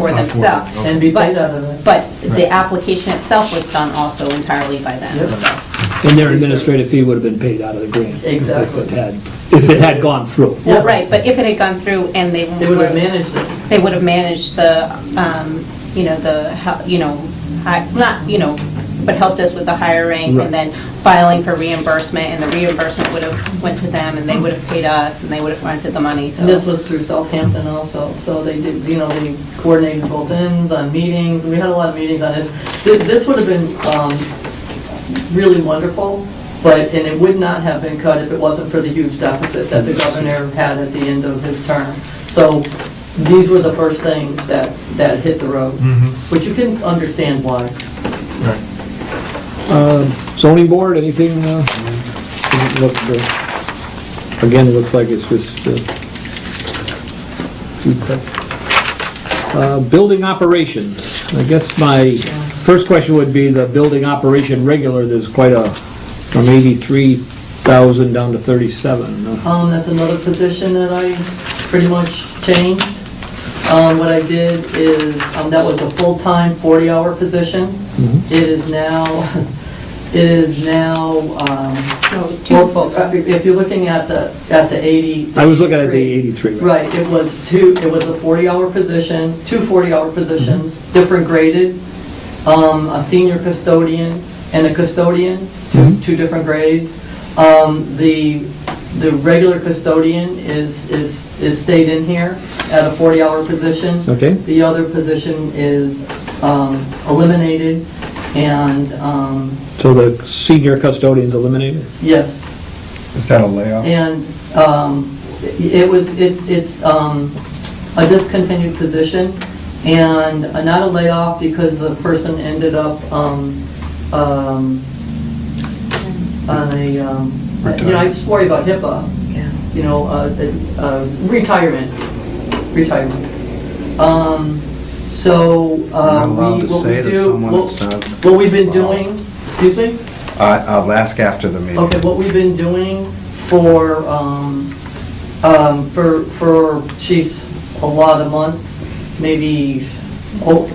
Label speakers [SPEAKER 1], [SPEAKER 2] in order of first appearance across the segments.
[SPEAKER 1] for themselves.
[SPEAKER 2] them, okay.
[SPEAKER 3] And be
[SPEAKER 1] But-
[SPEAKER 3] paid out of that.
[SPEAKER 1] But the
[SPEAKER 2] Right.
[SPEAKER 1] application itself was done also entirely by them,
[SPEAKER 3] Yep.
[SPEAKER 1] so.
[SPEAKER 4] And their administrative fee would have been paid out of the grant.
[SPEAKER 3] Exactly.
[SPEAKER 4] If it had, if it had gone through.
[SPEAKER 1] Well, right, but if it had gone through and they
[SPEAKER 3] They would have
[SPEAKER 1] were,
[SPEAKER 3] managed it.
[SPEAKER 1] they would have managed the, um, you know, the, hel- you know, hi- not, you know, but helped us with the hiring
[SPEAKER 4] Right.
[SPEAKER 1] and then filing for reimbursement, and the reimbursement would have went to them, and they would have paid us, and they would have rented the money, so.
[SPEAKER 3] And this was through Southampton also, so they did, you know, they coordinated both ends on meetings, we had a lot of meetings on it. Th- This would have been um, really wonderful, but, and it would not have been cut if it wasn't for the huge deficit that the governor had at the end of his term. So these were the first things that, that hit the road,
[SPEAKER 2] Mhm.
[SPEAKER 3] which you can understand why.
[SPEAKER 2] Right.
[SPEAKER 4] Um, Zoning board, anything, uh, doesn't look for- again, it looks like it's just, uh, uh, building operations. I guess my first question would be the building operation regular, there's quite a, from 83,000 down to 37. uh,
[SPEAKER 3] Um, that's another position that I pretty much changed. Um, what I did is, um, that was a full-time, 40-hour position.
[SPEAKER 4] Mm-hmm.
[SPEAKER 3] It is now, it is now, um,
[SPEAKER 1] No, it was two-
[SPEAKER 3] well, fo- uh, if you're looking at the, at the 80.
[SPEAKER 4] I was looking at the 83.
[SPEAKER 3] Right, it was two, it was a 40-hour position, two 40-hour positions, different graded, um, a senior custodian and a custodian, two,
[SPEAKER 4] Mhm.
[SPEAKER 3] two different grades. Um, The, the regular custodian is, is, is stayed in here at a 40-hour position.
[SPEAKER 4] Okay.
[SPEAKER 3] The other position is um, eliminated, and, um,
[SPEAKER 4] So the senior custodian's eliminated?
[SPEAKER 3] yes,
[SPEAKER 2] Is that a layoff?
[SPEAKER 3] and um, it was, it's, it's um, a discontinued position, and not a layoff because the person ended up um, um, on a, um, you know, I just worry about HIPAA, you know, uh, the, uh, retirement, retirement. Um, So. uh,
[SPEAKER 5] You're not allowed
[SPEAKER 3] we-
[SPEAKER 5] to
[SPEAKER 3] what we
[SPEAKER 5] say that
[SPEAKER 3] do-
[SPEAKER 5] someone
[SPEAKER 3] what-
[SPEAKER 5] is not-
[SPEAKER 3] What we've been doing, excuse me?
[SPEAKER 5] I- I'll ask after the meeting.
[SPEAKER 3] Okay, what we've been doing for, um, um, for, for, geez, a lot of months, maybe, oh,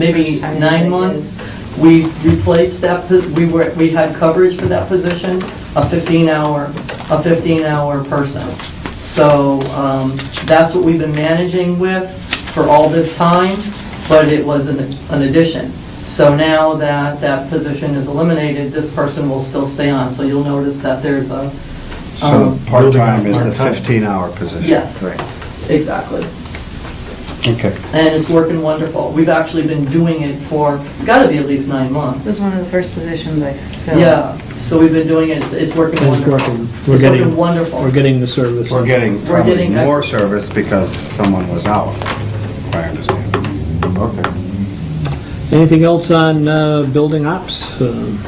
[SPEAKER 3] maybe nine months, we replaced that, po- we were, we had coverage for that position, a fifteen hour, a fifteen hour person. So, um, that's what we've been managing with for all this time, but it was an, an addition. So now that that position is eliminated, this person will still stay on, so you'll notice that there's a,
[SPEAKER 5] So
[SPEAKER 3] um,
[SPEAKER 5] the part-time is the
[SPEAKER 2] Part-time.
[SPEAKER 5] 15-hour position?
[SPEAKER 3] Yes.
[SPEAKER 5] Right.
[SPEAKER 3] exactly.
[SPEAKER 5] Okay.
[SPEAKER 3] and it's working wonderful. We've actually been doing it for, it's got to be at least nine
[SPEAKER 6] This was
[SPEAKER 3] months.
[SPEAKER 6] one of the first positions I filled.
[SPEAKER 3] Yeah, so we've been doing it, it's- it's working
[SPEAKER 4] It's
[SPEAKER 3] wonderful.
[SPEAKER 4] working, we're getting,
[SPEAKER 3] wonderful.
[SPEAKER 4] we're getting the service.
[SPEAKER 5] We're getting
[SPEAKER 3] We're
[SPEAKER 5] probably
[SPEAKER 3] getting-
[SPEAKER 5] more service because someone was out, if I understand. Okay.
[SPEAKER 4] Anything else on uh, building ops? Um,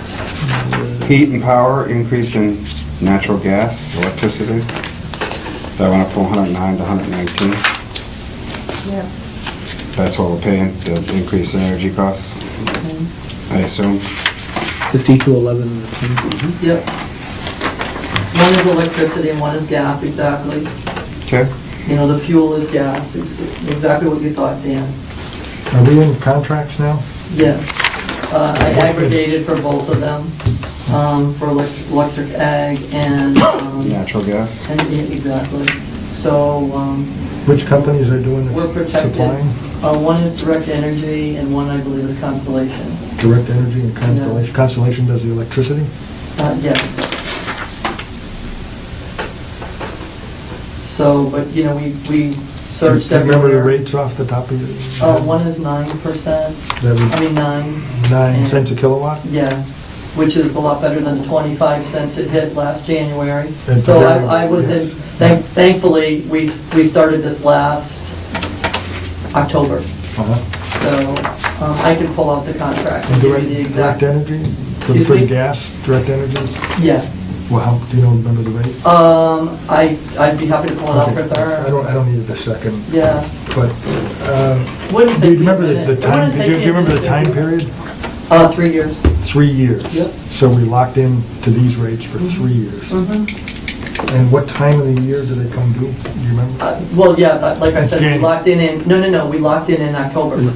[SPEAKER 5] Heat and power, increase in natural gas, electricity. That went up from 109 to 119.
[SPEAKER 6] Yeah.
[SPEAKER 5] That's what we're paying, the increase in energy costs, I assume.
[SPEAKER 4] 50 to 11,
[SPEAKER 3] Yep. One is electricity and one is gas, exactly.
[SPEAKER 5] Okay.
[SPEAKER 3] You know, the fuel is gas, e-, exactly what you thought, Dan.
[SPEAKER 2] Are we in contracts now?
[SPEAKER 3] Yes. Uh, I aggregated for both of them, um, for elect- electric ag and, um,
[SPEAKER 5] Natural gas.
[SPEAKER 3] and, yeah, exactly. So, um,
[SPEAKER 2] Which companies are doing
[SPEAKER 3] We're
[SPEAKER 2] this
[SPEAKER 3] protected.
[SPEAKER 2] supplying?
[SPEAKER 3] Uh, One is Direct Energy, and one, I believe, is Constellation.
[SPEAKER 2] Direct Energy and Constellation. Constellation does the electricity?
[SPEAKER 3] Uh, Yes. So, but, you know, we we searched
[SPEAKER 2] Remember the
[SPEAKER 3] everywhere.
[SPEAKER 2] rates off the top of your?
[SPEAKER 3] Uh, One is 9%,
[SPEAKER 2] That was
[SPEAKER 3] I mean, 9,
[SPEAKER 2] nine cents a kilowatt?
[SPEAKER 3] yeah, which is a lot better than the 25 cents it hit last January.
[SPEAKER 2] And
[SPEAKER 3] So
[SPEAKER 2] then-
[SPEAKER 3] I I was in,
[SPEAKER 2] yes.
[SPEAKER 3] thank- thankfully, we s- we started this last October,
[SPEAKER 2] Uh-huh.
[SPEAKER 3] so um, I can pull out the contract
[SPEAKER 2] And
[SPEAKER 3] and give you
[SPEAKER 2] direct,
[SPEAKER 3] the exact.
[SPEAKER 2] direct energy? For the
[SPEAKER 3] Excuse
[SPEAKER 2] free
[SPEAKER 3] me?
[SPEAKER 2] gas, direct energy?
[SPEAKER 3] Yeah.
[SPEAKER 2] Well, how, do you know, remember the rate?
[SPEAKER 3] Um, I, I'd be happy to pull it out oh, for
[SPEAKER 2] Okay. I
[SPEAKER 3] her.
[SPEAKER 2] don't, I don't need the second,
[SPEAKER 3] Yeah.
[SPEAKER 2] but, um,
[SPEAKER 3] Wouldn't take me
[SPEAKER 2] do you
[SPEAKER 3] a
[SPEAKER 2] remember the- the
[SPEAKER 3] minute.
[SPEAKER 2] time,
[SPEAKER 3] Wouldn't
[SPEAKER 2] do
[SPEAKER 3] take
[SPEAKER 2] you
[SPEAKER 3] me
[SPEAKER 2] do
[SPEAKER 3] a
[SPEAKER 2] you remember the
[SPEAKER 3] minute.
[SPEAKER 2] time period?
[SPEAKER 3] Uh, three years.
[SPEAKER 2] Three years.
[SPEAKER 3] Yep.
[SPEAKER 2] So we locked in to these rates for three years.
[SPEAKER 3] Mm-hmm.
[SPEAKER 2] And what time of the year do they come due? Do you remember?
[SPEAKER 3] Uh, Well, yeah, but like I
[SPEAKER 2] That's
[SPEAKER 3] said, we
[SPEAKER 2] January.
[SPEAKER 3] locked in in, no, no, no, we locked in in October.